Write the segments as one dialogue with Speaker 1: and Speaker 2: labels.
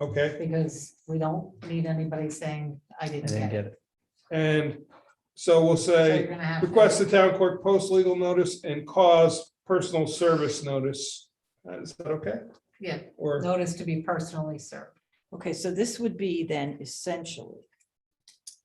Speaker 1: Okay,
Speaker 2: because we don't need anybody saying, I
Speaker 3: I
Speaker 2: didn't
Speaker 3: didn't
Speaker 2: get it.
Speaker 3: get it.
Speaker 1: and so we'll
Speaker 2: So
Speaker 1: say.
Speaker 2: you're gonna have to-
Speaker 1: Request the town clerk post legal notice and cause personal service notice. Uh, Is that okay?
Speaker 2: Yeah,
Speaker 1: Or,
Speaker 2: notice to be personally served.
Speaker 4: Okay, so this would be then essentially.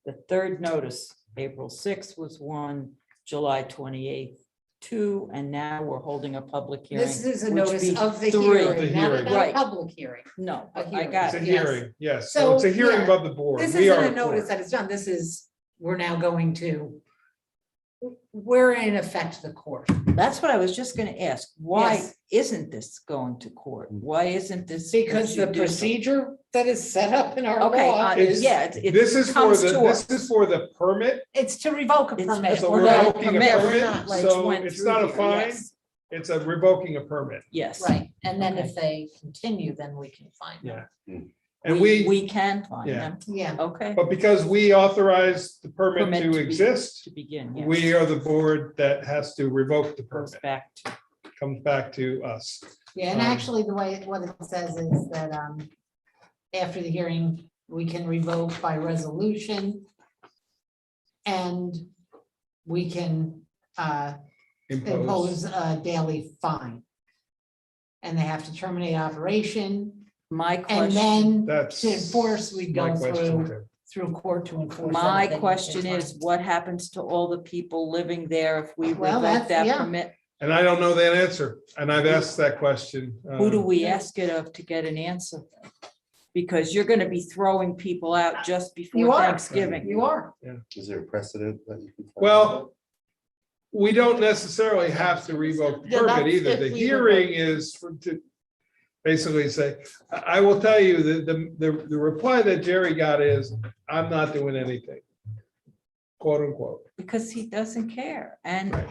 Speaker 4: The third notice, April sixth was one, July twenty-eighth, two, and now we're holding a public hearing.
Speaker 2: This is a
Speaker 4: which
Speaker 2: notice
Speaker 4: be
Speaker 2: of the
Speaker 4: three.
Speaker 1: The
Speaker 2: hearing, not
Speaker 1: hearing.
Speaker 2: about a
Speaker 4: Right.
Speaker 2: public hearing.
Speaker 4: No,
Speaker 2: a
Speaker 4: I
Speaker 1: it's
Speaker 4: got
Speaker 1: a
Speaker 4: it.
Speaker 2: Yes.
Speaker 1: hearing, yes, so it's a
Speaker 2: So,
Speaker 1: hearing
Speaker 2: yeah.
Speaker 1: above the board.
Speaker 2: This
Speaker 1: We are.
Speaker 2: isn't a
Speaker 1: the board.
Speaker 2: notice that it's done, this is, we're now going to, we're in effect the court.
Speaker 4: That's what I was just gonna ask. Why
Speaker 2: Yes.
Speaker 4: isn't this going to
Speaker 3: Mm.
Speaker 4: court? Why isn't this?
Speaker 2: Because the
Speaker 4: you do something?
Speaker 2: procedure that is set up in our
Speaker 4: Okay,
Speaker 2: law
Speaker 4: uh,
Speaker 1: It's-
Speaker 2: is,
Speaker 4: yeah. it- it
Speaker 1: This is for
Speaker 4: comes
Speaker 1: the,
Speaker 4: to
Speaker 1: this
Speaker 4: us.
Speaker 1: is for the permit.
Speaker 2: it's to revoke a
Speaker 4: It's-
Speaker 2: permit.
Speaker 4: it's a
Speaker 1: So
Speaker 2: We're
Speaker 1: we're
Speaker 2: not-
Speaker 1: revoking a
Speaker 4: permit, we're
Speaker 1: permit,
Speaker 4: not, like,
Speaker 1: so
Speaker 4: went
Speaker 1: it's
Speaker 4: through
Speaker 1: not a
Speaker 4: here,
Speaker 1: fine.
Speaker 4: yes.
Speaker 1: It's a revoking a permit.
Speaker 4: Yes.
Speaker 2: Right, and then
Speaker 4: Okay.
Speaker 2: if they continue, then we can find them.
Speaker 1: And we,
Speaker 4: We can find
Speaker 1: Yeah.
Speaker 4: them.
Speaker 2: Yeah,
Speaker 4: Okay,
Speaker 1: but because we authorized the permit
Speaker 4: Permit
Speaker 1: to
Speaker 4: to be-
Speaker 1: exist,
Speaker 4: to begin. yes.
Speaker 1: we are the board that has to revoke the
Speaker 4: Goes
Speaker 1: permit,
Speaker 4: back to
Speaker 1: comes back to us.
Speaker 2: yeah, and
Speaker 1: Um,
Speaker 2: actually, the way, what it says is that, um, after the hearing, we can revoke by resolution. And we can, uh, impose a daily fine. And they have to terminate operation,
Speaker 4: my
Speaker 2: and
Speaker 4: question.
Speaker 2: then
Speaker 1: That's.
Speaker 2: to enforce, we
Speaker 1: my
Speaker 2: go through,
Speaker 1: question too.
Speaker 2: through court to enforce.
Speaker 4: My
Speaker 2: anything.
Speaker 4: question is, what happens to all the people living there if we
Speaker 2: Well,
Speaker 4: revoke
Speaker 2: that's-
Speaker 4: that
Speaker 2: yeah.
Speaker 4: permit?
Speaker 1: And I don't know that answer, and I've asked that question.
Speaker 4: Who do
Speaker 1: um,
Speaker 4: we ask it of to get an answer? Because you're gonna be throwing people out just
Speaker 2: You
Speaker 4: before
Speaker 2: are.
Speaker 4: Thanksgiving.
Speaker 2: You are,
Speaker 5: Is there a precedent that you can? find?
Speaker 1: Well, we don't necessarily have to revoke the
Speaker 2: Yeah,
Speaker 1: permit
Speaker 2: that's
Speaker 1: either.
Speaker 2: if
Speaker 1: The
Speaker 2: we
Speaker 1: hearing is for- to basically say, I I will tell you that the, the, the reply that Jerry got is, I'm not doing anything. Quote unquote.
Speaker 4: Because he doesn't care. And,
Speaker 1: Right.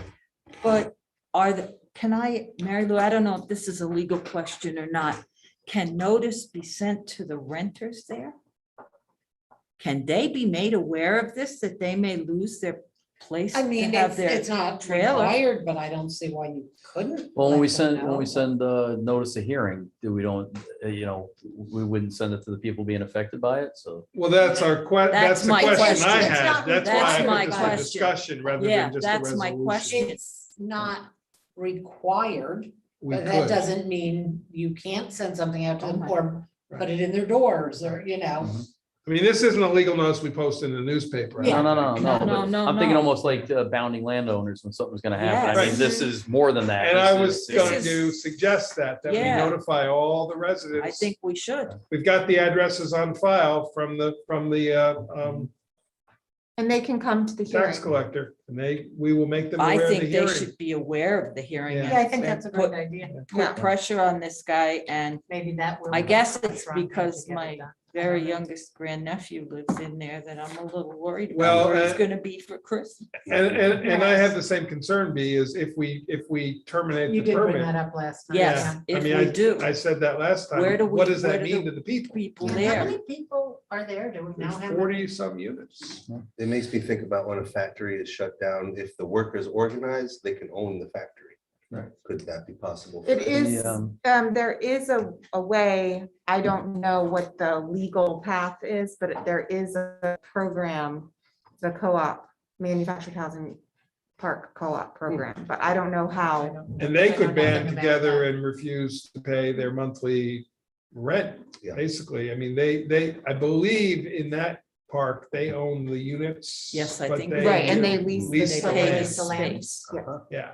Speaker 4: but are the, can I, Mary Lou, I don't know if this is a legal question or not. Can notice be sent to the renters there? Can they be made aware of this, that they may lose their place?
Speaker 2: I
Speaker 4: to
Speaker 2: mean,
Speaker 4: have
Speaker 2: it's,
Speaker 4: their-
Speaker 2: it's not
Speaker 4: trailer.
Speaker 2: required, but I don't see why you couldn't.
Speaker 3: Well, when we
Speaker 2: let them
Speaker 3: send, when
Speaker 2: know.
Speaker 3: we send the notice of hearing, do we don't, uh, you know, we wouldn't send it to the people being affected by it, so.
Speaker 1: Well, that's our que, that's
Speaker 4: That's
Speaker 1: the
Speaker 4: my
Speaker 1: question I
Speaker 4: question.
Speaker 2: It's
Speaker 1: had.
Speaker 2: not-
Speaker 1: That's
Speaker 4: that's
Speaker 1: why
Speaker 4: my
Speaker 1: I put
Speaker 4: question.
Speaker 1: this a discussion rather
Speaker 4: Yeah,
Speaker 1: than just a
Speaker 4: that's my
Speaker 1: resolution.
Speaker 4: question.
Speaker 2: It's not required,
Speaker 1: We
Speaker 2: but that
Speaker 1: could.
Speaker 2: doesn't mean you can't send something out to
Speaker 4: Oh
Speaker 2: them
Speaker 4: my-
Speaker 2: or
Speaker 1: Right.
Speaker 2: put it in their doors or, you know.
Speaker 1: Mm-hmm. I mean, this isn't a legal notice we post in the newspaper. I
Speaker 3: No,
Speaker 1: don't
Speaker 3: no,
Speaker 1: think.
Speaker 3: no, no.
Speaker 4: No, no,
Speaker 3: but
Speaker 4: no,
Speaker 3: I'm thinking
Speaker 4: no.
Speaker 3: almost like uh, bounding landowners when something's gonna happen. I
Speaker 1: Yes.
Speaker 3: mean, this is more than that.
Speaker 1: And I
Speaker 3: This
Speaker 1: was
Speaker 3: is-
Speaker 1: going
Speaker 4: is-
Speaker 1: to suggest that, that we
Speaker 4: Yeah.
Speaker 1: notify all the residents.
Speaker 4: I think we should.
Speaker 1: We've got the addresses on file from the, from the, uh, um,
Speaker 6: And they can come to the hearing.
Speaker 1: tax collector, and they, we will make them
Speaker 4: I
Speaker 1: aware of the
Speaker 4: think they
Speaker 1: hearing.
Speaker 4: should be aware of the hearing.
Speaker 1: Yeah.
Speaker 4: and-
Speaker 2: Yeah, I think that's a
Speaker 4: and
Speaker 2: great
Speaker 4: put-
Speaker 2: idea.
Speaker 4: Put pressure on this guy and
Speaker 2: Maybe that will.
Speaker 4: I guess it's
Speaker 2: Let's run that
Speaker 4: because
Speaker 2: together,
Speaker 4: my
Speaker 2: Doc.
Speaker 4: very youngest grandnephew lives in there that I'm a little worried
Speaker 1: Well,
Speaker 4: about where it's
Speaker 1: uh,
Speaker 4: gonna be for Christmas.
Speaker 1: And, and, and I have the same concern, B, is if we, if we terminate
Speaker 2: You
Speaker 1: the
Speaker 2: did bring that
Speaker 1: permit.
Speaker 2: up last time.
Speaker 4: Yes,
Speaker 1: I
Speaker 4: if
Speaker 1: mean,
Speaker 4: we do,
Speaker 1: I said that last
Speaker 4: Where do
Speaker 1: time. What
Speaker 4: we-
Speaker 1: does that
Speaker 4: where do
Speaker 1: mean
Speaker 4: the
Speaker 1: to the people?
Speaker 4: people
Speaker 2: And How
Speaker 4: there,
Speaker 2: many people are there? Do we now
Speaker 1: There's
Speaker 2: have?
Speaker 1: forty some units.
Speaker 5: It makes me think about when a factory is shut down, if the workers organize, they can own the factory.
Speaker 3: Right.
Speaker 5: Could that be possible? for
Speaker 6: It
Speaker 5: them?
Speaker 6: is,
Speaker 3: um,
Speaker 6: um, there is a, a way, I don't know what the legal path is, but there is a program, the co-op, manufactured housing park co-op program, but I don't know
Speaker 2: I
Speaker 6: how.
Speaker 2: don't know.
Speaker 1: And they
Speaker 2: I
Speaker 1: could
Speaker 2: know
Speaker 1: band
Speaker 2: nothing about
Speaker 1: together
Speaker 2: that.
Speaker 1: and refuse to pay their monthly rent,
Speaker 5: Yeah.
Speaker 1: basically. I mean, they, they, I believe in that park, they own the units.
Speaker 4: Yes, I
Speaker 1: but
Speaker 4: think-
Speaker 1: they
Speaker 6: Right, and
Speaker 1: do-
Speaker 6: they lease. the
Speaker 1: lease
Speaker 4: they
Speaker 1: the
Speaker 4: pay the
Speaker 1: land.
Speaker 4: space.
Speaker 1: Yeah,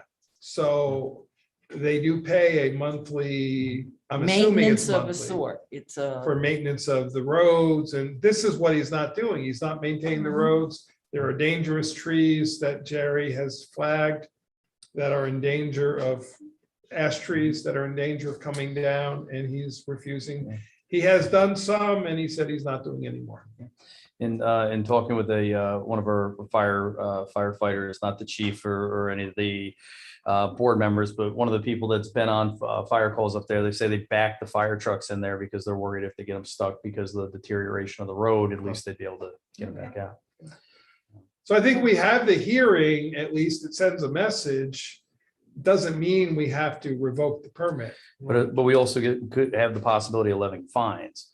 Speaker 1: so they do pay a monthly, I'm assuming it's
Speaker 4: Maintenance of a
Speaker 1: monthly.
Speaker 4: sort, it's a,
Speaker 1: For maintenance of the roads, and this is what he's not doing. He's not maintaining the roads. There are dangerous trees that Jerry has flagged that are in danger of ash trees that are in danger of coming down, and he's refusing. He has done some, and he said he's not doing any more.
Speaker 3: In, uh, in talking with a, uh, one of our fire uh, firefighters, not the chief or, or any of the uh, board members, but one of the people that's been on uh, fire calls up there, they say they back the fire trucks in there because they're worried if they get them stuck because of the deterioration of the road, at least they'd be able to get them back out.
Speaker 1: So I think we have the hearing, at least it sends a message. Doesn't mean we have to revoke the permit.
Speaker 3: uh, But, but we also get, could have the possibility of levying fines.